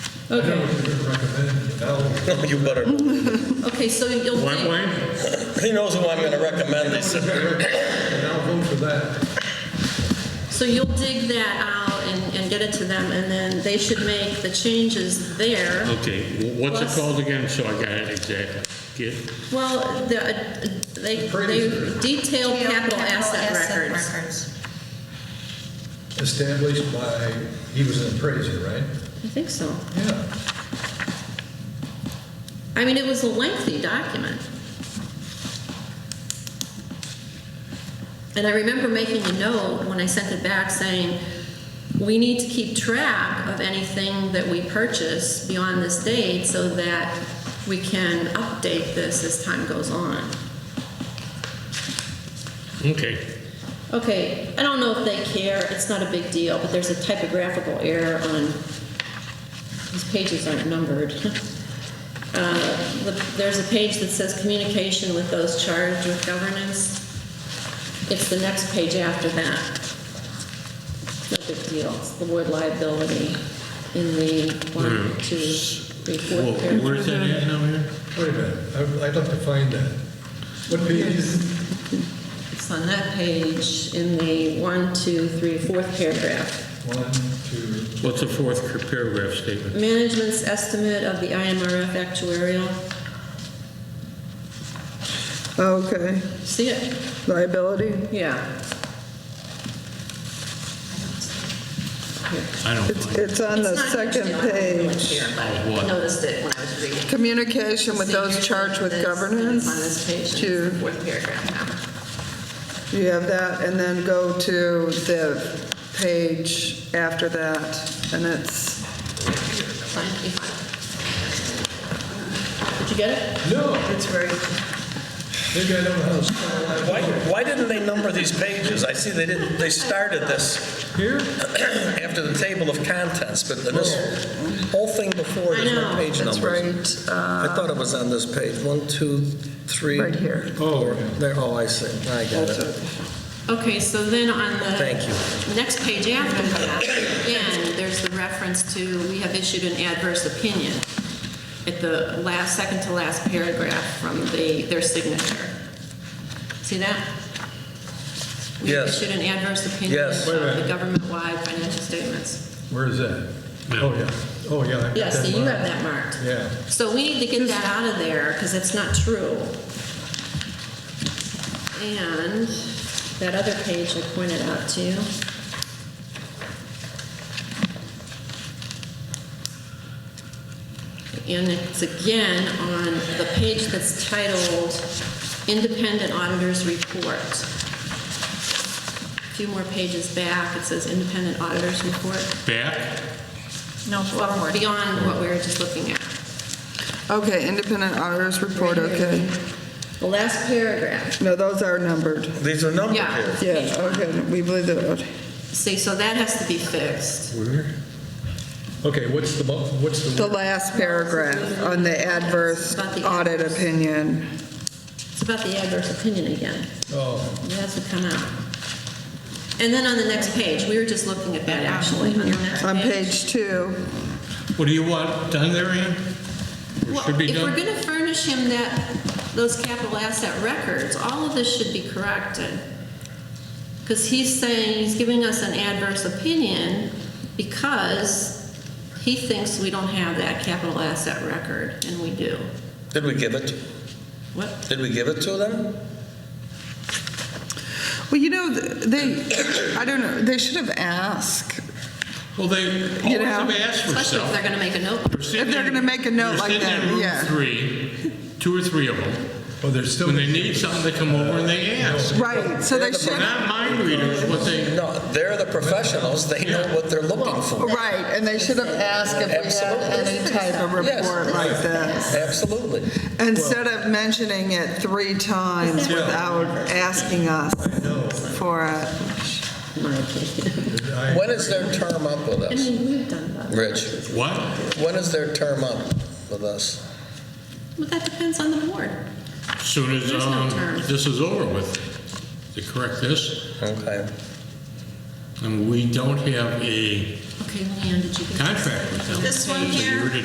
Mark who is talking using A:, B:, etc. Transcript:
A: Okay,
B: No, you better.
A: okay, so you'll
C: What,
A: take,
C: Wayne?
B: He knows who I'm going to recommend. They said,
A: so you'll dig that out and, and get it to them, and then they should make the changes there.
C: Okay, wh- what's
A: Plus-
C: it called again, so I got it exactly? Get,
A: Well, the, uh, they, they detailed capital asset records.
D: Established by, he was an appraiser, right?
A: I think so.
D: Yeah.
A: I mean, it was a lengthy document. And I remember making a note when I sent it back saying, we need to keep track of anything that we purchase beyond this date so that we can update this as time goes on.
C: okay,
A: Okay, I don't know if they care, it's not a big deal, but there's a typographical error on, these pages aren't numbered. Uh, the- There's a page that says communication with those charged with governance. It's the next page after that. No big deal, it's the word liability in the one, two, three,
C: Whoa,
A: fourth
C: where is
A: paragraph.
C: that at now here?
D: Wait a minute, I- I'd like to find that. What page is?
A: It's on that page in the one, two, three, fourth paragraph.
D: One, two,
C: What's the fourth cr- paragraph statement?
A: Management's estimate of the IMRF actuarial.
E: Oh, Okay,
A: See it?
E: liability.
A: Yeah.
C: I don't
E: It's
C: find it.
E: it's on the
A: It's not a huge
E: second
A: deal. I don't really
E: page.
A: care, but I
C: What?
A: Noticed it when I was reading.
E: Communication with
A: See,
E: those
A: here's
E: charged with
A: this, and it's
E: governance.
A: On this page, and
E: To-
A: it's the fourth paragraph
E: You have that, and then go to the page after that, and it's,
A: now. Fine, you fine. Did you get it?
D: no,
A: It's very.
D: maybe I don't know how to spell that.
B: why, why didn't they number these pages? I see they didn't, they started this
D: Here?
B: after the table of contents, but this whole thing before, there's
A: I know,
B: no page
E: it's
B: numbers.
E: right, uh,
B: I thought it was on this page, one, two, three.
E: Right here.
B: four. There, oh, I see, I got
E: that's
B: it.
E: it.
A: Okay, so then on the.
B: Thank you.
A: Next page after that, again, there's the reference to, we have issued an adverse opinion at the last, second to last paragraph from the, their signature. See that? We have
B: Yes.
A: issued an adverse opinion
B: Yes.
A: of the government-wide financial statements.
D: Where is that? Oh, yeah, oh, yeah. I got
A: Yeah, so
D: that
A: you have
D: marked.
A: that marked.
D: Yeah.
A: So we need to get that out of there, because it's not true. And that other page I pointed out to you. And it's again on the page that's titled Independent Auditor's Report. A few more pages back, it says Independent Auditor's Report.
C: Back?
A: No, well, beyond what we were just looking at.
E: Okay, independent auditors report,
A: Right here.
E: okay.
A: The last paragraph.
E: No, those are numbered.
B: These are numbered
A: Yeah.
B: here.
E: Yeah, okay, we believe that,
A: See, so that has to be fixed.
D: Okay, what's the, bu- what's
E: the
D: the,
E: last paragraph on the adverse
A: About the
E: audit
A: adverse.
E: opinion.
A: It's about the adverse opinion again.
D: oh,
A: It has to come out. And then on the next page, we were just looking at that actually, on the next
E: On
A: page.
E: page two,
C: What do you want done there, Ann? Or
A: Well,
C: should be
A: if we're
C: done?
A: gonna furnish him that, those capital asset records, all of this should be corrected. Because he's saying, he's giving us an adverse opinion because he thinks we don't have that capital asset record, and we do.
B: Did we give it,
A: What?
B: did we give it to them?
E: well, you know, they, I don't know, they should have asked.
C: Well, they always
E: know,
C: have asked for
A: Especially if
C: stuff.
A: they're gonna make a note.
C: We're sitting
E: if they're
C: in-
E: gonna make a note
C: we're
E: like
C: sitting
E: that,
C: in room
E: yeah.
C: three, two or three of them.
D: oh, there's still.
C: When they need something, they come over and they ask.
E: Right, so they
C: They're
E: should,
C: not mind readers, what they,
B: No, they're the professionals, they know what they're looking for.
E: right, and they should have asked if we had
B: Absolutely.
E: any type of
B: Yes.
E: report like this.
B: Absolutely.
E: Instead of mentioning it three times without asking us for it.
B: When is their term up with
A: I
B: us?
A: mean, we've done that.
B: Rich,
C: what?
B: when is their term up with us?
A: Well, that depends on the board.
C: Soon as
A: There's no
C: um,
A: term.
C: this is over with, to correct this,
B: Okay.
C: and we don't have a
A: Okay, Leanne, did you get this?
C: contract with them.
F: This one
C: It's a
F: here?
C: year to